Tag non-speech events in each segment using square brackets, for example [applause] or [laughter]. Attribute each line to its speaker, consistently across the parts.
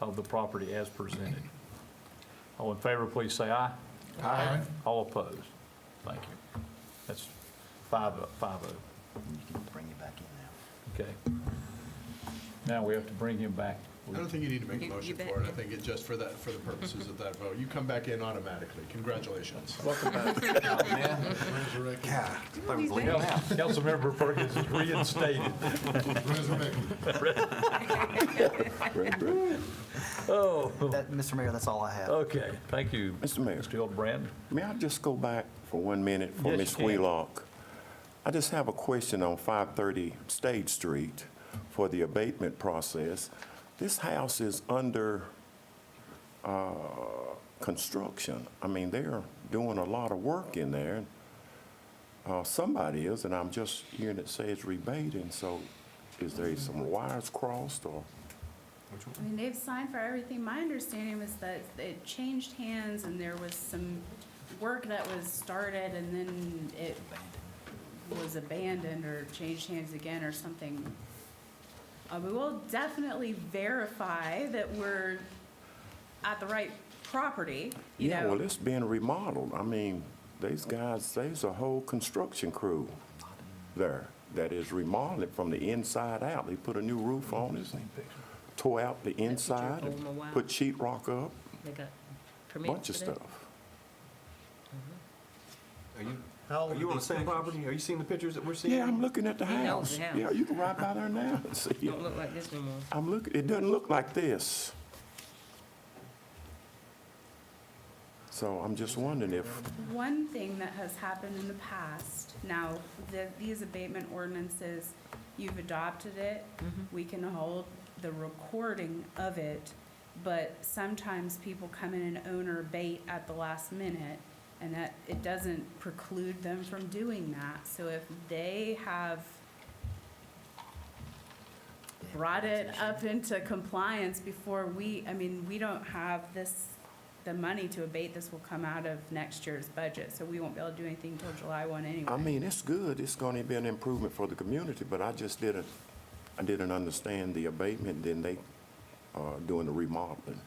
Speaker 1: of the property as presented. All in favor, please say aye.
Speaker 2: Aye.
Speaker 1: All opposed? Thank you. That's five, five oh,
Speaker 3: You can bring it back in now.
Speaker 1: okay. Now we have to bring him back.
Speaker 2: I don't think you need to make
Speaker 4: You-
Speaker 2: a
Speaker 4: you
Speaker 2: motion
Speaker 4: bet.
Speaker 2: for it. I think it's just for that, for the purposes of that vote. You come back in automatically. Congratulations.
Speaker 3: Yeah. I was
Speaker 4: he's
Speaker 3: leaving
Speaker 4: back.
Speaker 3: now.
Speaker 1: Councilmember Perkins is reinstated. Oh,
Speaker 3: That, Mr. Mayor, that's all I have.
Speaker 1: okay, thank you.
Speaker 5: Mr. Mayor.
Speaker 1: Mr. Hildebrand.
Speaker 5: May I just go back for one minute for
Speaker 1: Yes,
Speaker 5: Ms.
Speaker 1: you can.
Speaker 5: Wheelock? I just have a question on 530 State Street for the abatement process. This house is under uh, construction. I mean, they're doing a lot of work in there. Uh, Somebody is, and I'm just hearing it say it's rebating, so is there some wires crossed or?
Speaker 6: I mean, they've signed for everything. My understanding was that it changed hands and there was some work that was started and then it was abandoned or changed hands again or something. Uh, we will definitely verify that we're at the right property, you
Speaker 5: Yeah, well,
Speaker 6: know?
Speaker 5: it's being remodeled. I mean, these guys, there's a whole construction crew there that is remodeling from the inside out. They put a new roof on it, tore out the inside,
Speaker 4: Oh, my, wow.
Speaker 5: put sheet rock up,
Speaker 4: They got permits
Speaker 5: bunch of
Speaker 4: for that?
Speaker 5: stuff.
Speaker 7: Are Oh, you on the same property? Are you seeing the pictures that we're seeing?
Speaker 5: Yeah, I'm looking at the
Speaker 4: He knows
Speaker 5: house.
Speaker 4: the
Speaker 5: Yeah,
Speaker 4: house.
Speaker 5: you can ride by there now and see it.
Speaker 4: Don't look like this no more.
Speaker 5: I'm looking, it doesn't look like this. So I'm just wondering if,
Speaker 6: One thing that has happened in the past, now, the, these abatement ordinances, you've adopted it, we can hold the recording of it, but sometimes people come in and own or abate at the last minute, and that, it doesn't preclude them from doing that. So if they have brought it up into compliance before we, I mean, we don't have this, the money to abate this will come out of next year's budget, so we won't be able to do anything till July one anyway.
Speaker 5: I mean, it's good, it's gonna be an improvement for the community, but I just didn't, I didn't understand the abatement, then they are doing the remodeling.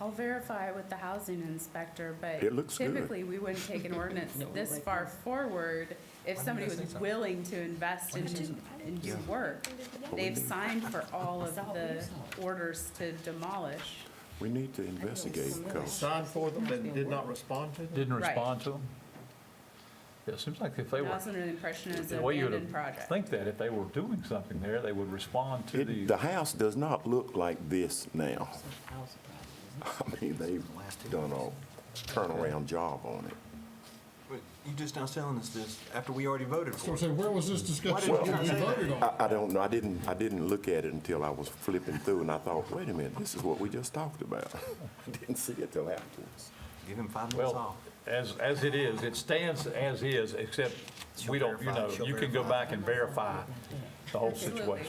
Speaker 6: I'll verify with the housing inspector, but
Speaker 5: It looks good.
Speaker 6: typically, we wouldn't take an ordinance
Speaker 4: [laughs] No,
Speaker 6: this
Speaker 4: like-
Speaker 6: far forward if somebody was willing to invest in, and do work. They've signed for all of the orders to demolish.
Speaker 5: We need to investigate, because
Speaker 7: Signed for them and did not respond to them?
Speaker 1: Didn't
Speaker 6: Right.
Speaker 1: respond to him? Yeah, it seems like if they
Speaker 6: I
Speaker 1: were,
Speaker 6: was under the impression it was an
Speaker 1: the way you
Speaker 6: abandoned
Speaker 1: would
Speaker 6: project.
Speaker 1: think that if they were doing something there, they would respond to the.
Speaker 5: the house does not look like this now. [laughs]
Speaker 4: House problem.
Speaker 5: I mean, they've done a turnaround job on it.
Speaker 7: Wait, You just now telling us this after we already voted for it.
Speaker 2: where was this discussion?
Speaker 7: Why didn't you say that?
Speaker 5: I, I don't know, I didn't, I didn't look at it until I was flipping through, and I thought, wait a minute, this is what we just talked about. [laughs] I didn't see it till afterwards.
Speaker 7: Give him five
Speaker 1: Well,
Speaker 7: minutes off.
Speaker 1: as, as it is, it stands as is, except we don't, you
Speaker 3: verify,
Speaker 1: know,
Speaker 3: she'll
Speaker 1: you can go
Speaker 3: verify.
Speaker 1: back and verify the whole
Speaker 6: Absolutely.
Speaker 1: situation.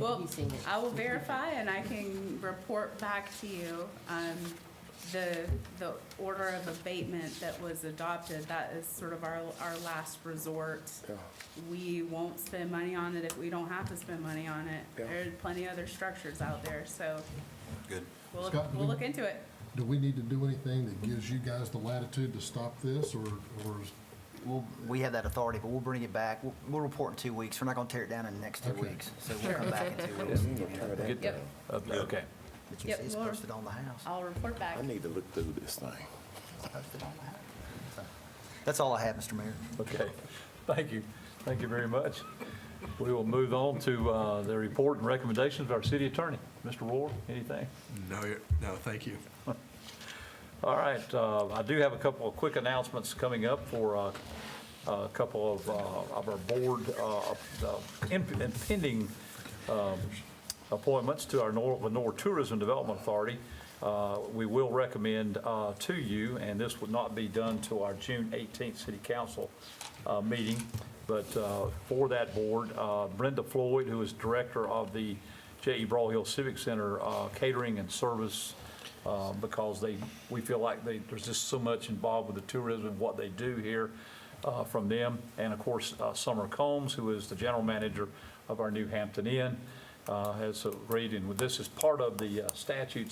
Speaker 6: Well, I will verify and I can report back to you, um, the, the order of abatement that was adopted, that is sort of our, our last resort. We won't spend money on it if we don't have to spend money on it. There are plenty of other structures out there, so
Speaker 3: Good.
Speaker 6: we'll, look-
Speaker 2: Scott, do
Speaker 6: we'll
Speaker 2: we-
Speaker 6: look into it.
Speaker 2: Do we need to do anything that gives you guys the latitude to stop this, or, or is
Speaker 3: We'll, we have that authority, but we'll bring it back. We'll, we'll report in two weeks. We're not gonna tear it down in the next two
Speaker 2: Okay.
Speaker 3: weeks. So we'll come back in two weeks. and give you an update.
Speaker 1: Get-
Speaker 6: Yep.
Speaker 1: uh, Okay,
Speaker 3: But you
Speaker 6: Yep,
Speaker 3: see it's
Speaker 6: we'll-
Speaker 3: posted on the house.
Speaker 6: I'll report back.
Speaker 5: I need to look through this thing.
Speaker 3: It's posted on the house. So, That's all I have, Mr. Mayor.
Speaker 1: okay. Thank you. Thank you very much. We will move on to uh, the report and recommendations of our city attorney. Mr. Rohr, anything?
Speaker 2: No, you're- no, thank you.
Speaker 1: All right, uh, I do have a couple of quick announcements coming up for uh, a couple of uh, of our board uh, uh, imp- impending um, appointments to our Nor- Lenore Tourism Development Authority. Uh, We will recommend uh, to you, and this would not be done till our June 18th city council uh, meeting, but uh, for that board, uh, Brenda Floyd, who is director of the J.E. Broadhill Civic Center uh, Catering and Service uh, because they, we feel like they, there's just so much involved with the tourism, what they do here uh, from them. And of course, uh, Summer Combs, who is the general manager of our New Hampton Inn, uh, has agreed, and this is part of the uh, statutes